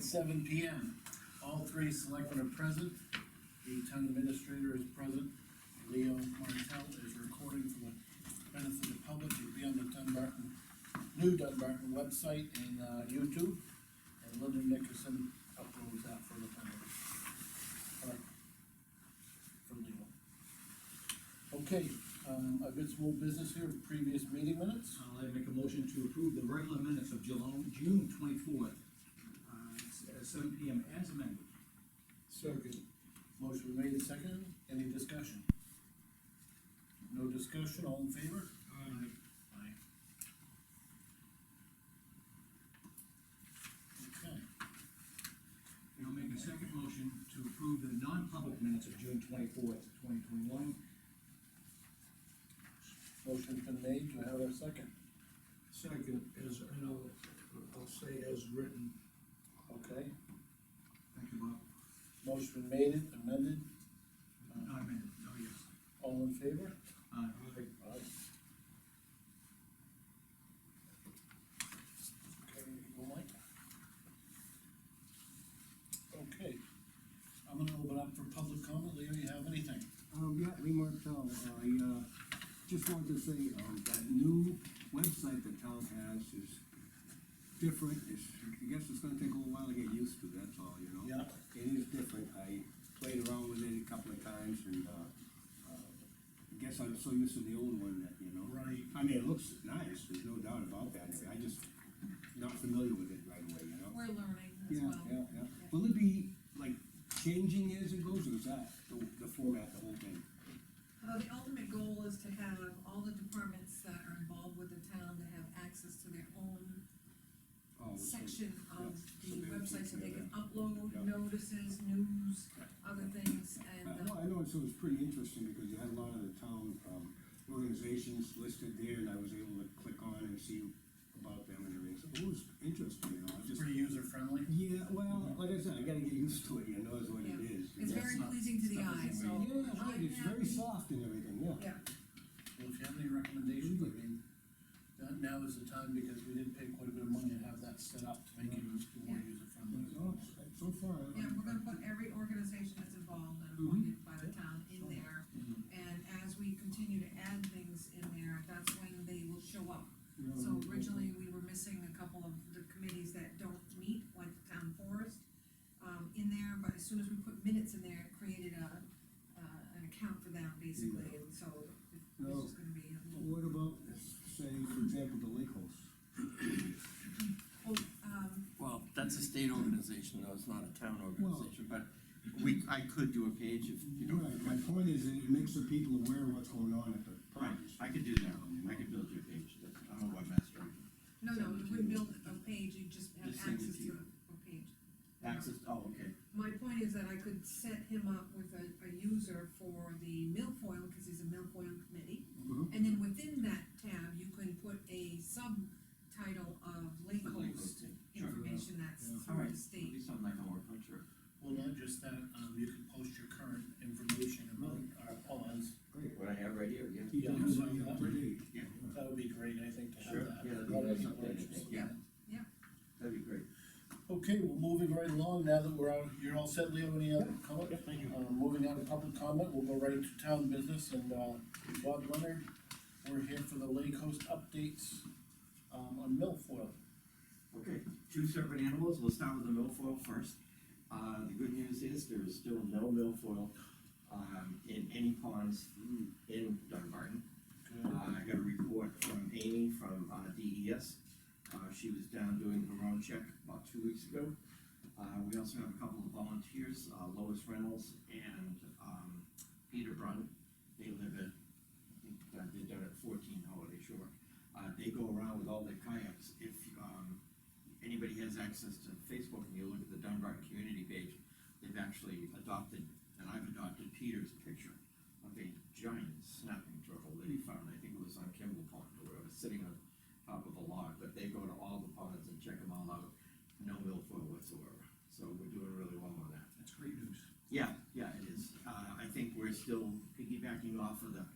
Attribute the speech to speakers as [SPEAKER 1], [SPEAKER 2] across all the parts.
[SPEAKER 1] seven P M. All three selectmen are present, the town administrator is present, Leo Martell is recording for the benefit of the public, it'll be on the Dunbarton, new Dunbarton website and, uh, YouTube, and Linda Nickerson uploads that for the panel. Uh, For Leo. Okay, um, I've got some old business here, previous meeting minutes,
[SPEAKER 2] I'll let- make a motion to approve the regular minutes of June, June twenty-fourth, uh, s- uh, seven P M as amended.
[SPEAKER 3] Second.
[SPEAKER 1] motion made and seconded, any discussion? No discussion, all in favor?
[SPEAKER 3] Aye.
[SPEAKER 1] Aye. Okay,
[SPEAKER 2] And I'll make a second motion to approve the non-public minutes of June twenty-fourth, twenty twenty-one.
[SPEAKER 1] motion's been made, do I have a second?
[SPEAKER 3] Second, as, and I'll, I'll say as written.
[SPEAKER 1] Okay,
[SPEAKER 2] Thank you, Bob. Uh,
[SPEAKER 1] motion made and amended,
[SPEAKER 2] Not amended, oh, yes.
[SPEAKER 1] all in favor?
[SPEAKER 2] Uh,
[SPEAKER 3] Aye.
[SPEAKER 1] Aye. Okay, go Mike. Okay, I'm gonna open up for public comment, Leo, you have anything?
[SPEAKER 4] Um, yeah, Lee Martell, I, uh, just wanted to say, um, that new website the town has is different, it's, I guess it's gonna take a little while to get used to, that's all, you know?
[SPEAKER 1] Yeah.
[SPEAKER 4] It is different, I played around with it a couple of times, and, uh, uh, I guess I'm so used to the old one that, you know?
[SPEAKER 1] Right.
[SPEAKER 4] I mean, it looks nice, there's no doubt about that, I just not familiar with it right away, you know?
[SPEAKER 5] We're learning as
[SPEAKER 4] Yeah,
[SPEAKER 5] well.
[SPEAKER 4] yeah, yeah, will it be, like, changing as it goes, or is that the, the format, the whole thing?
[SPEAKER 5] Although Uh, the ultimate goal is to have all the departments that are involved with the town to have access to their own
[SPEAKER 4] Oh, so-
[SPEAKER 5] section
[SPEAKER 4] yeah,
[SPEAKER 5] of
[SPEAKER 4] so
[SPEAKER 5] the
[SPEAKER 4] they can
[SPEAKER 5] website, so they
[SPEAKER 4] take
[SPEAKER 5] can
[SPEAKER 4] care
[SPEAKER 5] upload
[SPEAKER 4] Yeah.
[SPEAKER 5] notices, news,
[SPEAKER 4] Right.
[SPEAKER 5] other things, and,
[SPEAKER 4] Uh,
[SPEAKER 5] uh,
[SPEAKER 4] Well, I know, so it was pretty interesting because you had a lot of the town, um, organizations listed there and I was able to click on and see about them and everything, so it was interesting, you know, I just.
[SPEAKER 1] Pretty user friendly.
[SPEAKER 4] Yeah, well, like I said, I gotta get used to it, you know, is what it
[SPEAKER 5] Yeah.
[SPEAKER 4] is.
[SPEAKER 5] it's
[SPEAKER 4] Yeah,
[SPEAKER 5] very
[SPEAKER 2] not-
[SPEAKER 5] pleasing to the
[SPEAKER 2] it's not the
[SPEAKER 5] eye, so.
[SPEAKER 2] same way.
[SPEAKER 4] Yeah, right,
[SPEAKER 5] I'm
[SPEAKER 4] it's very
[SPEAKER 5] happy.
[SPEAKER 4] soft and everything, yeah.
[SPEAKER 5] Yeah,
[SPEAKER 1] Well, if you have any recommendations, I mean, that now is the time, because we did pay quite a bit of money to have that set up to make it more user friendly.
[SPEAKER 4] But, oh, it's- So far. I-
[SPEAKER 5] yeah, we're gonna put every organization that's involved and
[SPEAKER 4] Mhm.
[SPEAKER 5] appointed by the town in there,
[SPEAKER 4] Mm-hmm.
[SPEAKER 5] and as we continue to add things in there, that's when they will show up.
[SPEAKER 4] Yeah,
[SPEAKER 5] So
[SPEAKER 4] yeah.
[SPEAKER 5] originally, we were missing a couple of the committees that don't meet, like the town forest, um, in there, but as soon as we put minutes in there, it created a, uh, an account for them, basically, and so it's just gonna be a little,
[SPEAKER 4] What about, say, for example, the lake house?
[SPEAKER 5] well, um,
[SPEAKER 6] Well, that's a state organization, though, it's not a town organization, but we, I could do a page if, you know.
[SPEAKER 4] Right, my point is, it makes the people aware of what's going on at the
[SPEAKER 6] Right,
[SPEAKER 4] properties.
[SPEAKER 6] I could do that, I could build you a page, that's, I'm a webmaster, I can
[SPEAKER 5] no, no, you wouldn't build a page, you just have
[SPEAKER 6] Just send it
[SPEAKER 5] access to
[SPEAKER 6] to you.
[SPEAKER 5] a page.
[SPEAKER 6] access, oh, okay.
[SPEAKER 5] My point is that I could set him up with a, a user for the milfoil, because he's a milfoil committee.
[SPEAKER 4] Mhm.
[SPEAKER 5] And then within that tab, you can put a subtitle of lake host
[SPEAKER 6] Sure.
[SPEAKER 5] information that's
[SPEAKER 4] Yeah.
[SPEAKER 6] All
[SPEAKER 5] through
[SPEAKER 6] right,
[SPEAKER 5] the
[SPEAKER 6] it'll
[SPEAKER 5] state.
[SPEAKER 6] be something I can work on, sure.
[SPEAKER 1] Well, not just that, um, you can post your current information about our ponds,
[SPEAKER 4] Great.
[SPEAKER 6] What I have right here, yeah.
[SPEAKER 4] Keep
[SPEAKER 1] Yeah,
[SPEAKER 4] everybody
[SPEAKER 1] so-
[SPEAKER 4] up to date.
[SPEAKER 6] Yeah.
[SPEAKER 1] that would be great, I think, to have
[SPEAKER 6] Sure,
[SPEAKER 1] that.
[SPEAKER 6] yeah, that'd be
[SPEAKER 1] A lot of
[SPEAKER 6] nice
[SPEAKER 1] people are
[SPEAKER 6] update, I
[SPEAKER 1] interested
[SPEAKER 6] think,
[SPEAKER 1] in
[SPEAKER 6] yeah.
[SPEAKER 1] that.
[SPEAKER 6] That'd be great.
[SPEAKER 1] Okay, well, moving right along, now that we're out, you're all set, Leo, any other comment?
[SPEAKER 6] thank
[SPEAKER 1] Uh, moving on to public comment, we'll go right into town business, and, uh, Bob Leonard, we're here for the Lake Coast updates, um, on milfoil.
[SPEAKER 6] Okay, two separate animals, we'll start with the milfoil first. Uh, the good news is there is still no milfoil, um, in any ponds in Dunbarton. Uh, I got a report from Amy from, uh, DES. Uh, she was down doing her own check about two weeks ago. Uh, we also have a couple of volunteers, uh, Lois Reynolds and, um, Peter Brun. They live at, I think, uh, they're down at fourteen Holiday Shore. Uh, they go around with all their kayaks. If, um, anybody has access to Facebook and you look at the Dunbar community page, they've actually adopted, and I've adopted Peter's picture of a giant snapping turtle that he found, I think it was on Kimball Pond or whatever, sitting on top of a log, but they go to all the ponds and check them all out, no milfoil whatsoever. So we're doing really well on that.
[SPEAKER 2] That's great news.
[SPEAKER 6] Yeah, yeah, it is. Uh, I think we're still piggybacking off of the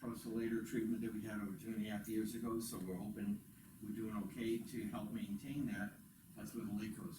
[SPEAKER 6] proselytor treatment that we had over two and a half years ago, so we're hoping we're doing okay to help maintain that. That's where the lake goes.